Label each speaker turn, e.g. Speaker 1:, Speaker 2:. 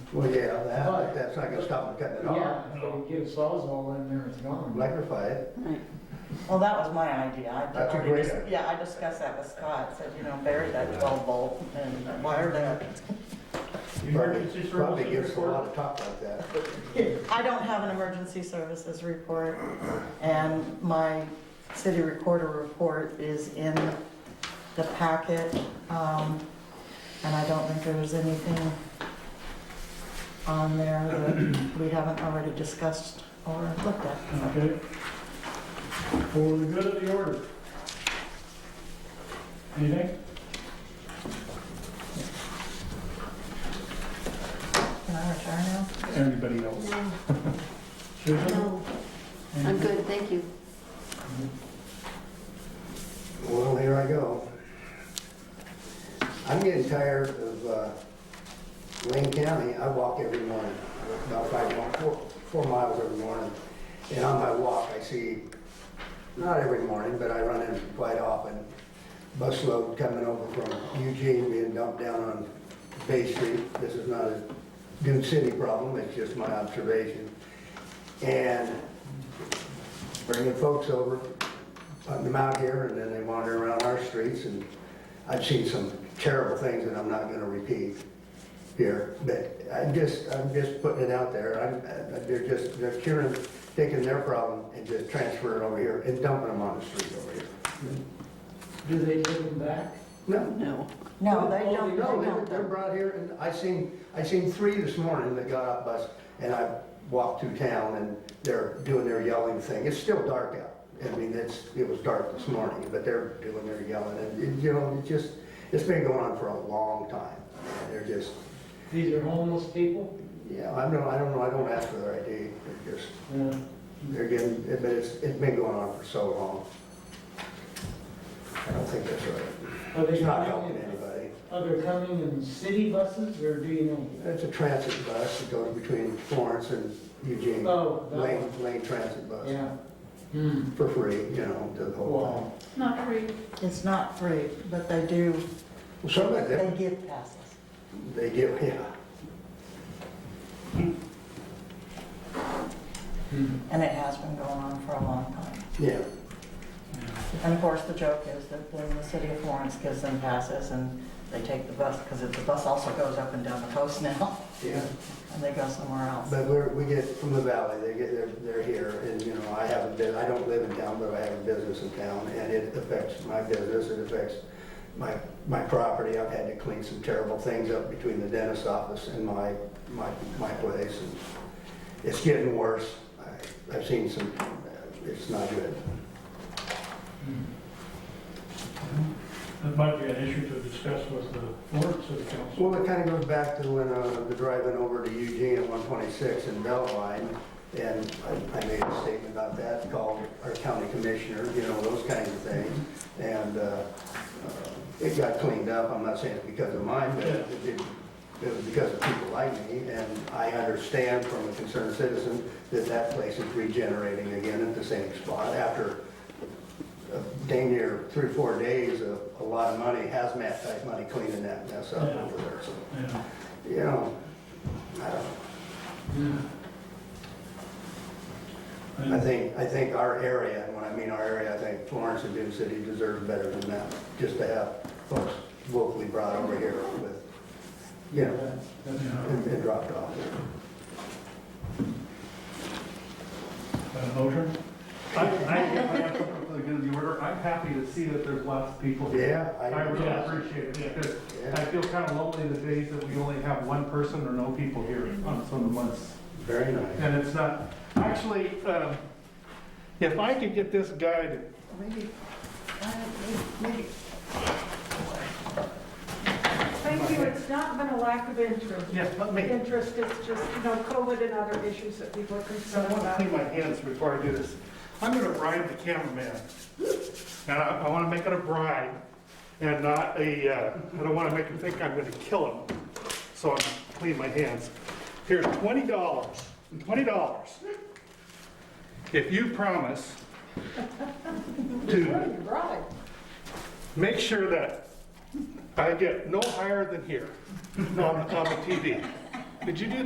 Speaker 1: Well, yeah, that, but that's not gonna stop them cutting it off.
Speaker 2: Yeah, if we get a sawzall in there, it's gone.
Speaker 1: Electrify it.
Speaker 3: Well, that was my idea. I-
Speaker 1: That's a
Speaker 3: I
Speaker 1: great
Speaker 3: dis-
Speaker 1: idea.
Speaker 3: Yeah, I discussed that with Scott, said, you know, bury that twelve volt and wire that.
Speaker 1: Probably, probably gives a lot of talk like that.
Speaker 3: I don't have an emergency services report, and my city recorder report is in the packet. um, And I don't think there's anything on there that we haven't already discussed or looked at.
Speaker 2: Okay. For the good of the order. Anything?
Speaker 3: Can I retire now?
Speaker 2: Anybody else?
Speaker 4: No,
Speaker 2: Susan?
Speaker 4: no, I'm
Speaker 2: Anything?
Speaker 4: good, thank you.
Speaker 1: Well, here I go. I'm getting tired of uh, Wayne County. I walk every morning, about five, mi- four, four miles every morning. And on my walk, I see, not every morning, but I run into quite often, busload coming over from Eugene being dumped down on Bay Street. This is not a Dune City problem, it's just my observation. And bringing folks over, putting them out here, and then they wander around our streets, and I've seen some terrible things that I'm not gonna repeat here, but I'm just, I'm just putting it out there, I'm, uh, they're just, they're curing, taking their problem and just transferring it over here and dumping them on the street over here.
Speaker 2: Do they give them back?
Speaker 1: No,
Speaker 4: No.
Speaker 3: No, they don't,
Speaker 1: No,
Speaker 3: they
Speaker 1: they were-
Speaker 3: don't.
Speaker 1: they're brought here, and I seen, I seen three this morning that got off bus, and I walked through town, and they're doing their yelling thing. It's still dark out. I mean, it's, it was dark this morning, but they're doing their yelling, and, it- you know, it just, it's been going on for a long time. And They're just,
Speaker 2: These are homeless people?
Speaker 1: yeah, I don't, I don't know, I don't ask for their ID, they're just,
Speaker 2: Yeah.
Speaker 1: they're getting, but it's, it's been going on for so long. I don't think that's right.
Speaker 2: Are they
Speaker 1: It's not
Speaker 2: coming
Speaker 1: helping
Speaker 2: in,
Speaker 1: anybody.
Speaker 2: are they coming in city buses or do you know?
Speaker 1: It's a transit bus that goes between Florence and Eugene.
Speaker 2: Oh, that
Speaker 1: Lane, Lane Transit Bus,
Speaker 2: Yeah. Hmm.
Speaker 1: for free, you know, the whole
Speaker 2: Wow.
Speaker 5: Not free.
Speaker 3: It's not free, but they do,
Speaker 1: thing. Some of
Speaker 3: they
Speaker 1: them,
Speaker 3: give passes.
Speaker 1: they give, yeah.
Speaker 2: Hmm.
Speaker 3: And it has been going on for a long time.
Speaker 1: Yeah,
Speaker 3: And of course, the joke is that then the city of Florence gives them passes and they take the bus, because the bus also goes up and down the coast now,
Speaker 1: yeah.
Speaker 3: and they go somewhere else.
Speaker 1: But we're, we get from the valley, they get, they're, they're here, and, you know, I have a bit, I don't live in town, but I have a business in town, and it affects my business, it affects my, my property. I've had to clean some terrible things up between the dentist's office and my, my, my place, and it's getting worse. I, I've seen some, it's not good.
Speaker 6: That might be an issue to discuss with the Florence City Council.
Speaker 1: Well, it kind of goes back to when, uh, the drive-in over to Eugene at 126 in Belline, and I I made a statement about that, called our county commissioner, you know, those kinds of things, and, uh, uh, it got cleaned up, I'm not saying it's because of mine, but it did, it was because of people like me, and I understand from a concerned citizen that that place is regenerating again at the same spot after uh, dang near three, four days of a lot of money, hazmat type money cleaning that mess up
Speaker 6: Yeah.
Speaker 1: over there, so
Speaker 6: Yeah.
Speaker 1: you know, I don't,
Speaker 2: hmm.
Speaker 1: I
Speaker 6: And
Speaker 1: think, I think our area, and when I mean our area, I think Florence and Dune City deserve better than that, just to have folks locally brought over here with, you know,
Speaker 2: That's- that's-
Speaker 1: and and dropped off.
Speaker 6: uh, a motion?
Speaker 7: I, I, for the good of the order, I'm happy to see that there's lots of people here.
Speaker 1: Yeah,
Speaker 7: I really
Speaker 1: I,
Speaker 6: Yeah.
Speaker 7: appreciate it, because I
Speaker 1: yeah,
Speaker 7: feel kind of lonely the days that we only have one person or no people here on some of the months.
Speaker 1: very nice.
Speaker 7: And it's not, actually, um, if I could get this guy to,
Speaker 3: Maybe, uh, maybe,
Speaker 5: Thank you, it's not been a lack of interest.
Speaker 7: yes, let me,
Speaker 5: Interest, it's just, you know, COVID and other issues that people are
Speaker 7: I
Speaker 5: concerned
Speaker 7: want to
Speaker 5: about.
Speaker 7: clean my hands before I do this. I'm going to bribe the cameraman. And I, I want to make it a bribe and not a, uh, I don't want to make him think I'm going to kill him. So I'm cleaning my hands. Here's twenty dollars, twenty dollars. If you promise to
Speaker 5: You're right.
Speaker 7: make sure that I get no higher than here on, on the TV. Could you do